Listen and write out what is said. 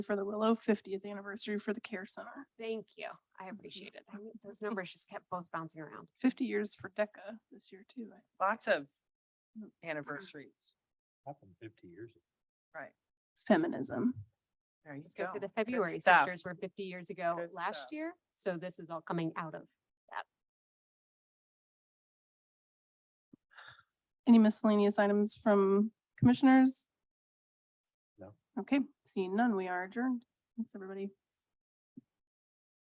for the Willow, fiftieth anniversary for the Care Center, Thank you. I Mm-hmm. appreciate it. I mean, Those numbers just kept both bouncing around. fifty years for DECA this year too. I- lots of Mm, anniversaries. Happened fifty years. ago. Right. Feminism. There you Let's go go. say the Good February stuff. sisters were fifty years ago Good last stuff. year, so this is all coming out of. Any miscellaneous items from commissioners? No. Okay, seeing none, we are adjourned. Thanks, everybody.